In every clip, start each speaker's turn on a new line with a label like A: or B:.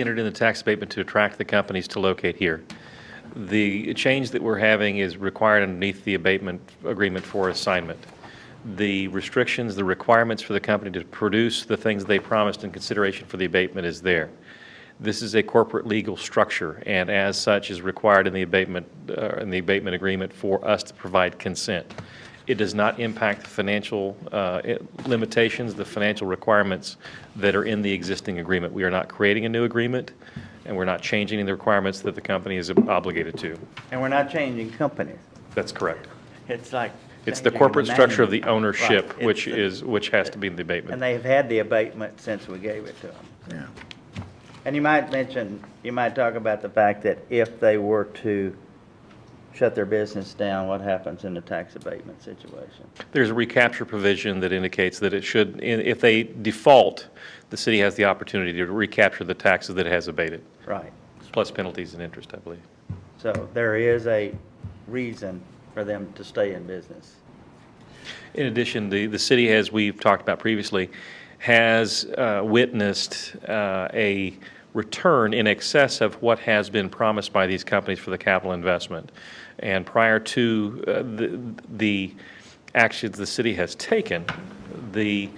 A: entered in the tax abatement to attract the companies to locate here. The change that we're having is required underneath the abatement agreement for assignment. The restrictions, the requirements for the company to produce the things they promised in consideration for the abatement is there. This is a corporate legal structure, and as such is required in the abatement, uh, in the abatement agreement for us to provide consent. It does not impact the financial uh, it- limitations, the financial requirements that are in the existing agreement. We are not creating a new agreement, and we're not changing the requirements that the company is obligated to.
B: And we're not changing companies.
A: That's correct.
B: It's like.
A: It's the
B: changing
A: corporate structure of
B: name.
A: the ownership,
B: Right. It's
A: which
B: the-
A: is, which has to be in the
B: And
A: abatement.
B: they've had the abatement since we gave it to them.
C: Yeah.
B: And you might mention, you might talk about the fact that if they were to shut their business down, what happens in the tax abatement situation?
A: There's a recapture provision that indicates that it should, i- if they default, the city has the opportunity to recapture the taxes that it has abated,
B: Right.
A: plus penalties and interest, I believe.
B: So there is a reason for them to stay in business.
A: In addition, the, the city, as we've talked about previously, has uh, witnessed uh, a return in excess of what has been promised by these companies for the capital investment. And prior to uh, the, the actions the city has taken, the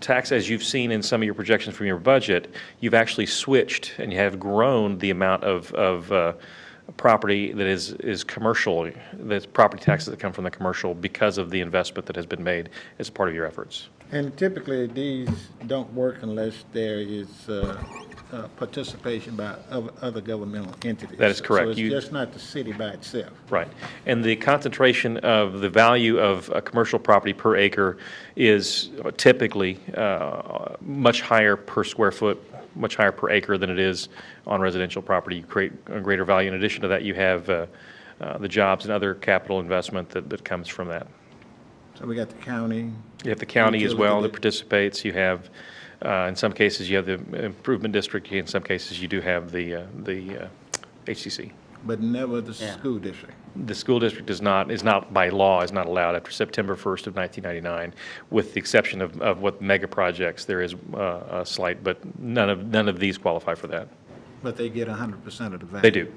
A: tax, as you've seen in some of your projections from your budget, you've actually switched and you have grown the amount of, of uh, property that is, is commercial, that's property taxes that come from the commercial because of the investment that has been made as part of your efforts.
C: And typically, these don't work unless there is uh, uh, participation by oth- other governmental entities.
A: That is correct.
C: So it's
A: You-
C: just not the city by itself.
A: Right. And the concentration of the value of a commercial property per acre is typically uh, much higher per square foot, much higher per acre than it is on residential property. You create a greater value. In addition to that, you have uh, uh, the jobs and other capital investment that, that comes from that.
C: So we got the county.
A: You have the county as well that
C: Utility.
A: participates. You have, uh, in some cases, you have the improvement district. In some cases, you do have the, uh, the uh, HCC.
C: But never the
B: Yeah.
C: school district.
A: The school district is not, is not by law, is not allowed after September 1st of 1999, with the exception of, of what mega projects, there is uh, a slight, but none of, none of these qualify for that.
C: But they get hundred percent of the value.
A: They do.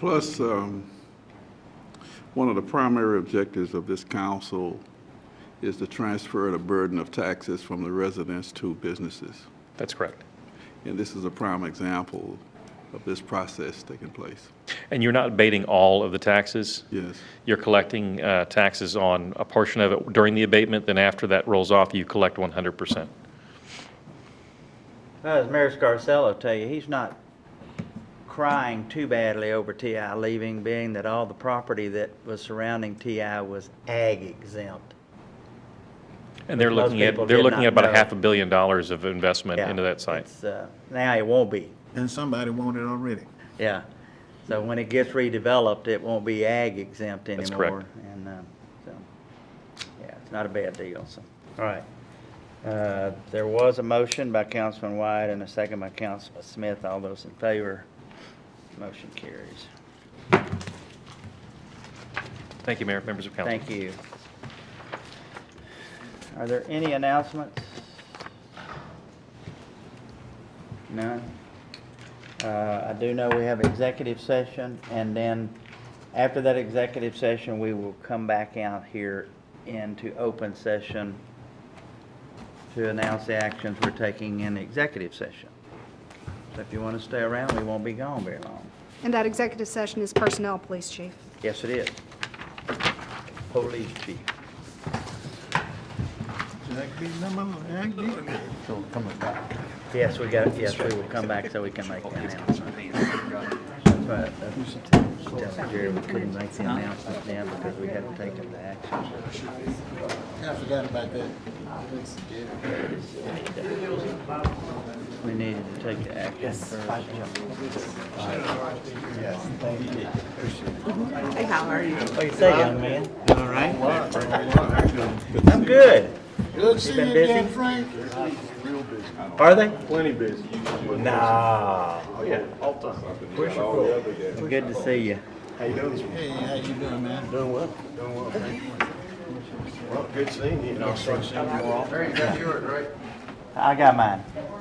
D: Plus, um, one of the primary objectives of this council is to transfer the burden of taxes from the residents to businesses.
A: That's correct.
D: And this is a prime example of this process taking place.
A: And you're not abating all of the taxes?
D: Yes.
A: You're collecting uh, taxes on a portion of it during the abatement, then after that rolls off, you collect 100%.
B: Well, As Mayor Scarsello tell you, he's not crying too badly over TI leaving, being that all the property that was surrounding TI was ag exempt.
A: And they're
B: Most
A: looking at,
B: people
A: they're
B: did
A: looking
B: not
A: at about a
B: know.
A: half a billion dollars of investment
B: Yeah,
A: into that site.
B: it's, uh, Now it won't be,
C: And somebody won it already.
B: yeah. So when it gets redeveloped, it won't be ag exempt anymore.
A: That's correct.
B: And, um, so, yeah, it's not a bad deal, so. All right. Uh, There was a motion by Councilman White and a second by Councilman Smith. All those in favor, motion carries.
A: Thank you, Mayor, members of council.
B: Thank you. Are there any announcements? None? Uh, I do know we have executive session, and then after that executive session, we will come back out here into open session to announce the actions we're taking in executive session. So if you want to stay around, we won't be gone very long.
E: And that executive session is personnel, police chief.
B: Yes, it is. Police chief.
C: That could be number, that could be-
B: Yes, we got, yes, we will come back so we can make the announcement. But, uh, telling Jerry we couldn't make the announcement then because we hadn't taken the action.
C: I forgot about that.
B: We needed to take the action first.
F: Hey, how are you?
B: What do you say, young man? All right. I'm good.
C: Good to see you
B: been
C: again,
B: busy?
C: Frank.
B: Are they? Plenty busy. Nah. Oh, yeah. Good to see you.
C: Hey, how you doing, man? Doing
B: I got mine.